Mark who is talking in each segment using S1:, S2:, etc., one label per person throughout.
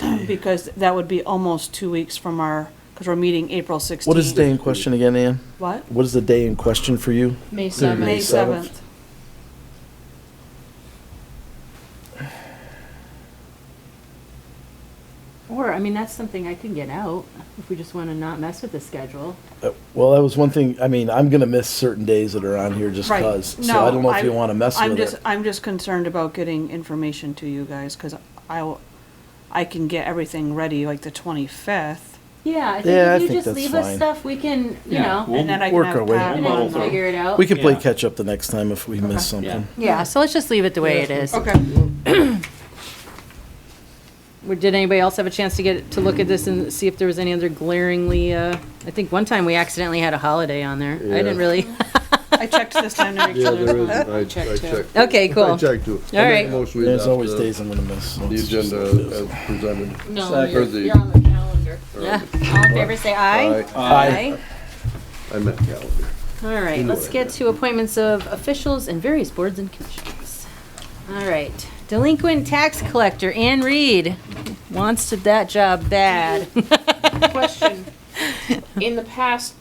S1: because that would be almost two weeks from our, because we're meeting April 16th.
S2: What is the day in question again, Ann?
S1: What?
S2: What is the day in question for you?
S3: May
S1: May
S3: 7th.
S2: 7th.
S1: 7th.
S3: Or, I mean, that's something I can get out if we just want to not mess with the schedule.
S2: Uh, Well, that was one thing, I mean, I'm gonna miss certain days that are on here just
S1: Right.
S2: cause, so
S1: No,
S2: I don't know if
S1: I'm-
S2: you wanna mess
S1: I'm
S2: with
S1: just,
S2: it.
S1: I'm just concerned about getting information to you guys, because I, I can get everything ready like the 25th,
S3: Yeah, I
S2: Yeah, I
S3: think if you
S2: think
S3: just
S2: that's
S3: leave us
S2: fine.
S3: stuff, we can, you
S4: Yeah,
S3: know,
S4: we'll-
S1: and then I can
S2: Work
S1: have
S2: our way-
S1: Pat
S3: and then
S4: muddle
S1: mull
S3: we'll
S1: through.
S4: through.
S3: figure it out.
S2: We can play
S4: Yeah.
S2: catch up the next time if we miss something.
S3: Yeah, so let's just leave it the way it is.
S1: Okay,
S3: Or Did anybody else have a chance to get, to look at this and see if there was any other glaringly, uh, I think one time we accidentally had a holiday on there. I didn't
S5: Yeah.
S3: really,
S1: I checked this time to make
S5: Yeah,
S1: sure there's
S5: there is,
S1: not.
S5: I I checked.
S3: okay,
S5: I
S3: cool.
S5: checked too.
S3: All right.
S2: There's always days I'm gonna miss. so
S5: uh, The
S2: it's just-
S5: agenda as presented.
S3: No,
S5: Or the-
S3: on the calendar.
S5: or
S3: Yeah,
S5: the-
S3: all in favor, say aye.
S2: Aye.
S5: I meant calendar.
S3: All right, let's get to appointments of officials and various boards and commissions. All right, delinquent tax collector Ann Reed wants to- that job bad.
S6: question. In the past,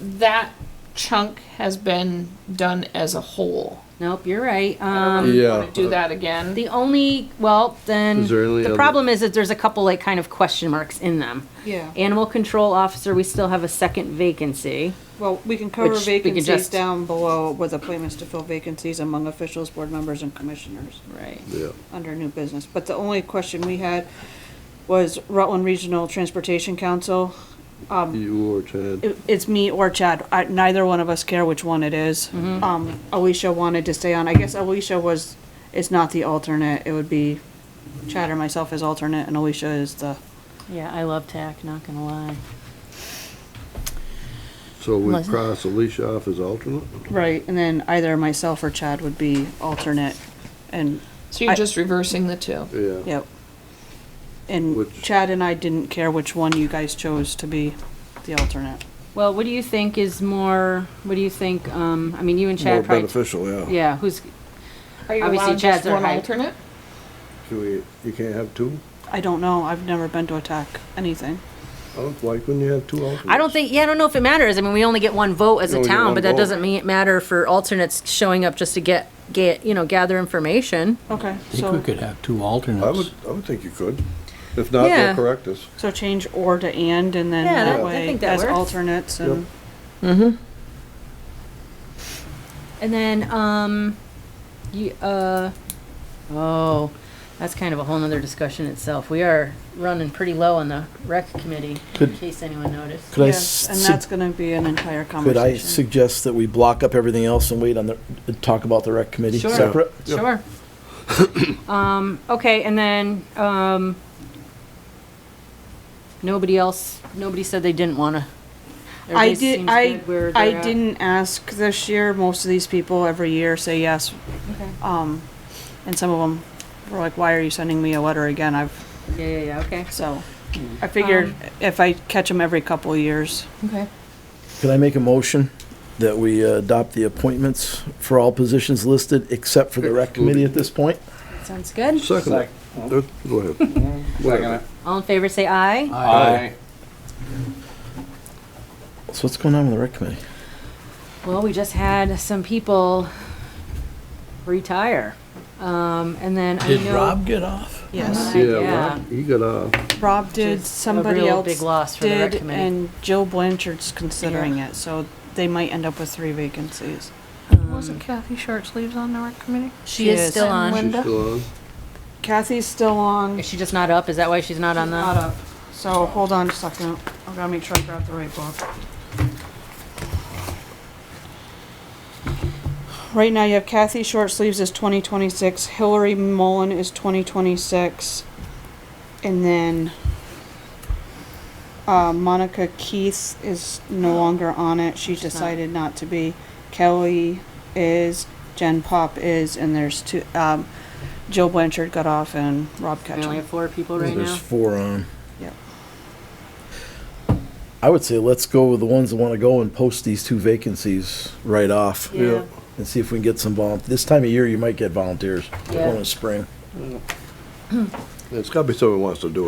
S6: that chunk has been done as a whole.
S3: Nope, you're right. Um,
S5: Yeah.
S6: Wanna Do that again?
S3: the only, well, then,
S5: Is there any
S3: the
S5: other-
S3: problem is that there's a couple like kind of question marks in them.
S1: Yeah,
S3: Animal control officer, we still have a second vacancy.
S1: well, we can cover
S3: Which we can
S1: vacancies
S3: just-
S1: down below with appointments to fill vacancies among officials, board members, and commissioners.
S3: Right.
S5: Yeah,
S1: under new business, but the only question we had was Rutland Regional Transportation Council.
S5: you E or Chad.
S1: It- It's me or Chad. I- Neither one of us care which one it is. Um, Alicia wanted to stay on. I guess Alicia was, is not the alternate. It would be Chad or myself as alternate and Alicia is the,
S3: Yeah, I love TAC, not gonna lie.
S5: So we
S3: Melissa?
S5: cross Alicia off as alternate?
S1: right, and then either myself or Chad would be alternate. And,
S6: So
S1: I-
S6: you're just reversing the two?
S5: Yeah.
S1: yep. And
S5: Which-
S1: Chad and I didn't care which one you guys chose to be the alternate.
S3: Well, what do you think is more, what do you think, um, I mean, you and
S2: More
S3: Chad probably.
S2: beneficial, yeah.
S3: Yeah, who's,
S6: Are you
S3: Obviously,
S6: allowed
S3: Chad's
S6: just
S3: our
S6: one
S3: high-
S6: alternate?
S5: So we, you can't have two?
S1: I don't know. I've never been to attack anything.
S5: Oh, Why couldn't you have two alternates?
S3: I don't think, yeah, I don't know if it matters. I mean, we only get one vote as
S5: You
S3: a
S5: only get
S3: town,
S5: one
S3: but that
S5: vote.
S3: doesn't mean it matter for alternates showing up just to get, get, you know, gather information.
S1: Okay,
S4: I think we
S1: so,
S4: could have two
S5: I would,
S4: alternates.
S5: I would think you could. If not,
S3: Yeah.
S5: they'll correct us.
S1: so change or to and, and then
S3: Yeah,
S1: that
S3: that- I
S1: way,
S3: think that
S1: as
S3: works.
S1: alternates and,
S3: And then, um, you, uh, oh, that's kind of a whole nother discussion itself. We are running pretty low on the rec committee, in
S2: Could-
S3: case anyone noticed.
S2: Could I,
S1: yes, and that's
S2: sug-
S1: gonna be an entire
S2: could I
S1: conversation.
S2: suggest that we block up everything else and wait on the, talk about the rec committee
S3: Sure.
S2: separate?
S3: Sure. Um, okay, and then, um, nobody else, nobody said they didn't wanna.
S1: I
S3: Everybody
S1: did,
S3: seems
S1: I,
S3: good where
S1: I
S3: they're at.
S1: didn't ask this year. Most of these people every year say yes.
S3: Okay.
S1: Um, and some of them were like, why are you sending me a letter again? I've,
S3: Yeah, yeah, yeah, okay.
S1: so, I figured
S3: Um,
S1: if I catch them every couple of years.
S3: Okay.
S2: Could I make a motion that we uh, adopt the appointments for all positions listed except for the rec committee at this point?
S3: Sounds good.
S5: Second. it. Uh, Go ahead.
S7: Second.
S3: All in favor, say
S4: Uh,
S3: aye.
S4: Aye.
S2: So what's going on with the rec committee?
S3: Well, we just had some people retire. Um, and then I know.
S4: Did Rob get off?
S1: Yes.
S3: Yeah.
S5: Yeah, Rob, you got off.
S1: Rob did,
S3: is a
S1: somebody
S3: real
S1: else
S3: big loss for the rec
S1: did,
S3: committee.
S1: and Joe Blanchard's considering it, so they might end up with three vacancies.
S8: Wasn't Kathy Short sleeves on the rec committee?
S3: Um, She is
S1: Yes.
S3: still
S1: And
S3: on.
S5: She's still on?
S1: Kathy's still on,
S3: Is she just not up? Is that why she's not on
S1: not
S3: the?
S1: up, so hold on a second, I gotta make sure I grab the right book. Right now, you have Kathy Short Sleeves is twenty twenty-six, Hillary Mullen is twenty twenty-six, and then uh, Monica Keith is no longer on it, she
S3: Oh. not.
S1: decided not to be. Kelly is, Jen Pop is, and there's two, um, Joe Blanchard got off and Rob
S3: We
S1: Ketchum.
S3: only have four people right
S2: There's
S3: now.
S2: four on.
S1: Yep.
S2: I would say let's go with the ones that want to go and post these two vacancies right off.
S3: Yeah.
S2: And see if we can get some volun, this time of year, you might get volunteers,
S3: Yeah.
S2: going in spring.
S5: It's gotta be someone who wants to do it.